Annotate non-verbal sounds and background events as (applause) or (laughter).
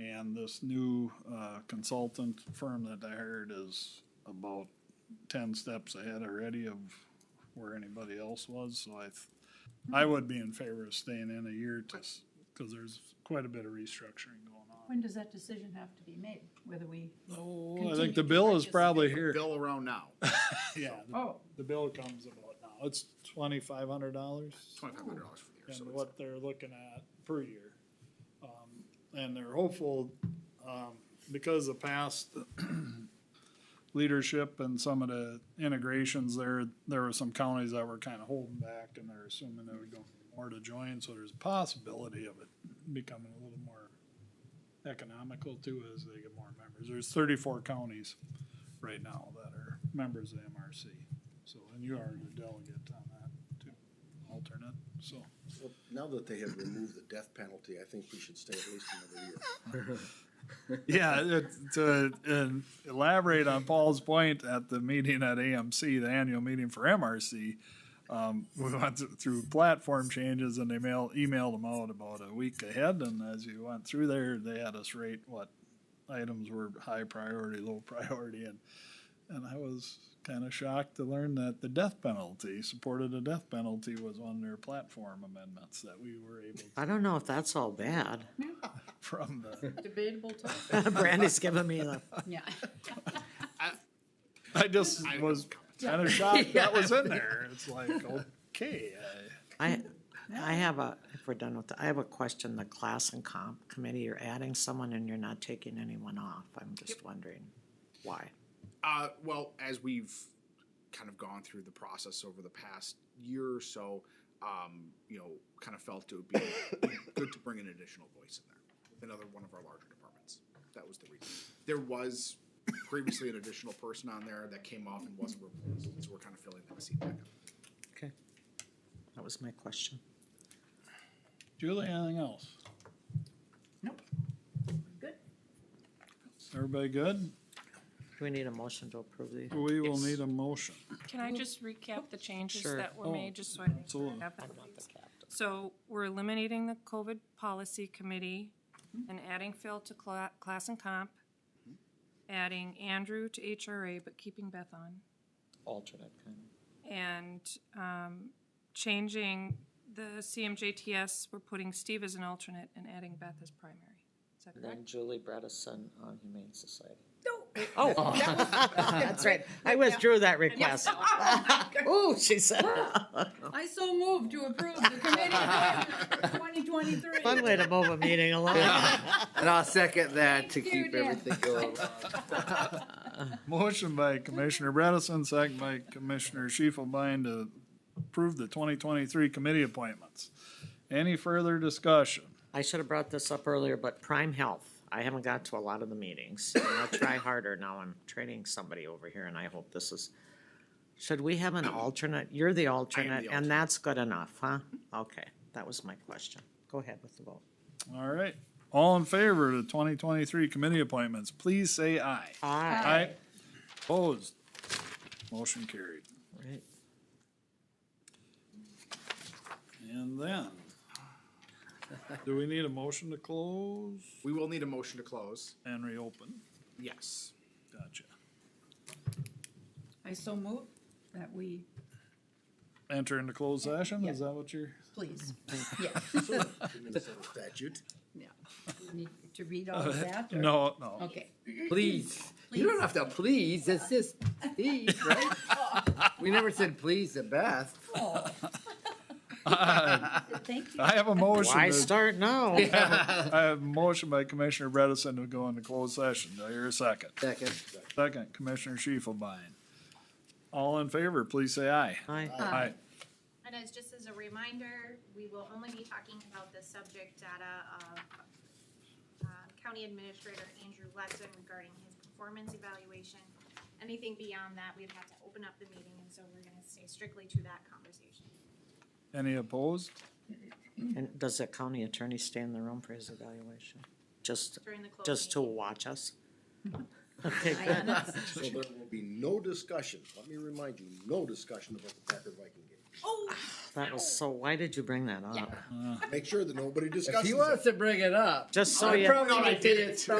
And this new uh, consultant firm that I hired is about ten steps ahead already of where anybody else was, so I, th- I would be in favor of staying in a year to, because there's quite a bit of restructuring going on. When does that decision have to be made, whether we, Oh, I Continue think the to bill is participate. probably here. Bill around now, Yeah, the- oh, the bill comes about now. It's twenty-five hundred dollars twenty-five hundred dollars for the year, so and it's- what they're looking at per year. Um, And they're hopeful, um, because of past (clears throat) leadership and some of the integrations there, there were some counties that were kind of holding back and they're assuming there would go more to join, so there's a possibility of it becoming a little more economical too as they get more members. There's thirty-four counties right now that are members of MRC. So, and you are the delegate on that too, alternate, so. Well, Now that they have removed the death penalty, I think we should stay at least another year. Yeah, it- to uh, elaborate on Paul's point at the meeting at AMC, the annual meeting for MRC, um, (laughs) we went th- through platform changes and they mail, emailed them out about a week ahead. And as we went through there, they had us rate what items were high priority, low priority. And, and I was kind of shocked to learn that the death penalty, supported a death penalty was on their platform amendments that we were able (laughs) to, I don't know if that's all bad. (laughs) from the, debatable topic, Brandy's giving me the, (laughs) yeah. (laughs) I just I- was kind of shocked that was in there. It's like, okay, I, I, I have a, if we're done with, the- I have a question, the class and comp committee, you're adding someone and you're not taking anyone off. I'm just wondering why. Uh, well, as we've kind of gone through the process over the past year or so, um, you know, kind of felt it would be (coughs) good to bring an additional voice in there, another one of our larger departments. That was the reason. There was previously an additional person on there that came off and wasn't replaced, so we're kind of filling that seat back up. Okay. That was my question. Julie, anything else? Nope. Good. Everybody good? Do we need a motion to approve the? We will need a motion. Can I just recap the changes Sure. that Oh, were made, just so I make sure absolutely. I have them? So we're eliminating the COVID policy committee and adding Phil to cla- class and comp, adding Andrew to HRA, but keeping Beth on, Alternate kind of. and um, changing the CMJTS, we're putting Steve as an alternate and adding Beth as primary. Is that correct? Then Julie Bredesen on Humane Society. No. Oh. (laughs) That's right. I withdrew that request. Ooh, she (laughs) said. I so moved to approve the committee twenty twenty-three. One way to move a meeting along. (laughs) And I'll second that to Thank you, keep Dan. everything going. Motion by Commissioner Bredesen, second by Commissioner Shifelbein to approve the twenty twenty-three committee appointments. Any further discussion? I should have brought this up earlier, but Prime Health, I haven't got to a lot of the meetings. and I'll try harder now. I'm training somebody over here and I hope this is. Should we have an alternate? You're the alternate and alternate. that's good enough, huh? Okay, that was my question. Go ahead with the vote. All right, all in favor of the twenty twenty-three committee appointments, please say aye. Aye. Aye. Opposed? Motion carried. Right. And then, do we need a motion to close We will need a motion to close. and reopen? Yes. Gotcha. I so moved that we, Enter into closed session, is that what you're, please, yeah, (laughs) Minnesota statute. yeah. We Need to read all of that? or- Uh, no, no. Okay. Please. You don't have to please. It's just please, right? We never said please the best. Oh. Thank (laughs) you. I have a motion, Why to- start now? I have a motion by Commissioner Bredesen to go into closed session, do I hear a second? Second. Second, Commissioner Shifelbein. All in favor, please say aye. Aye. Aye. And as just as a reminder, we will only be talking about the subject data of uh, County Administrator Andrew Letson regarding his performance evaluation. Anything beyond that, we'd have to open up the meeting, and so we're gonna stay strictly to that conversation. Any opposed? And does the county attorney stay in the room for his evaluation? Just, During the closed just to meeting. watch us? Okay, I good. honestly- So there will be no discussion, let me remind you, no discussion about the Packer Viking game. Oh, That was so, why did you bring that up? Make sure that nobody discusses If it. he wants to bring it up. Just so I you. probably would say it's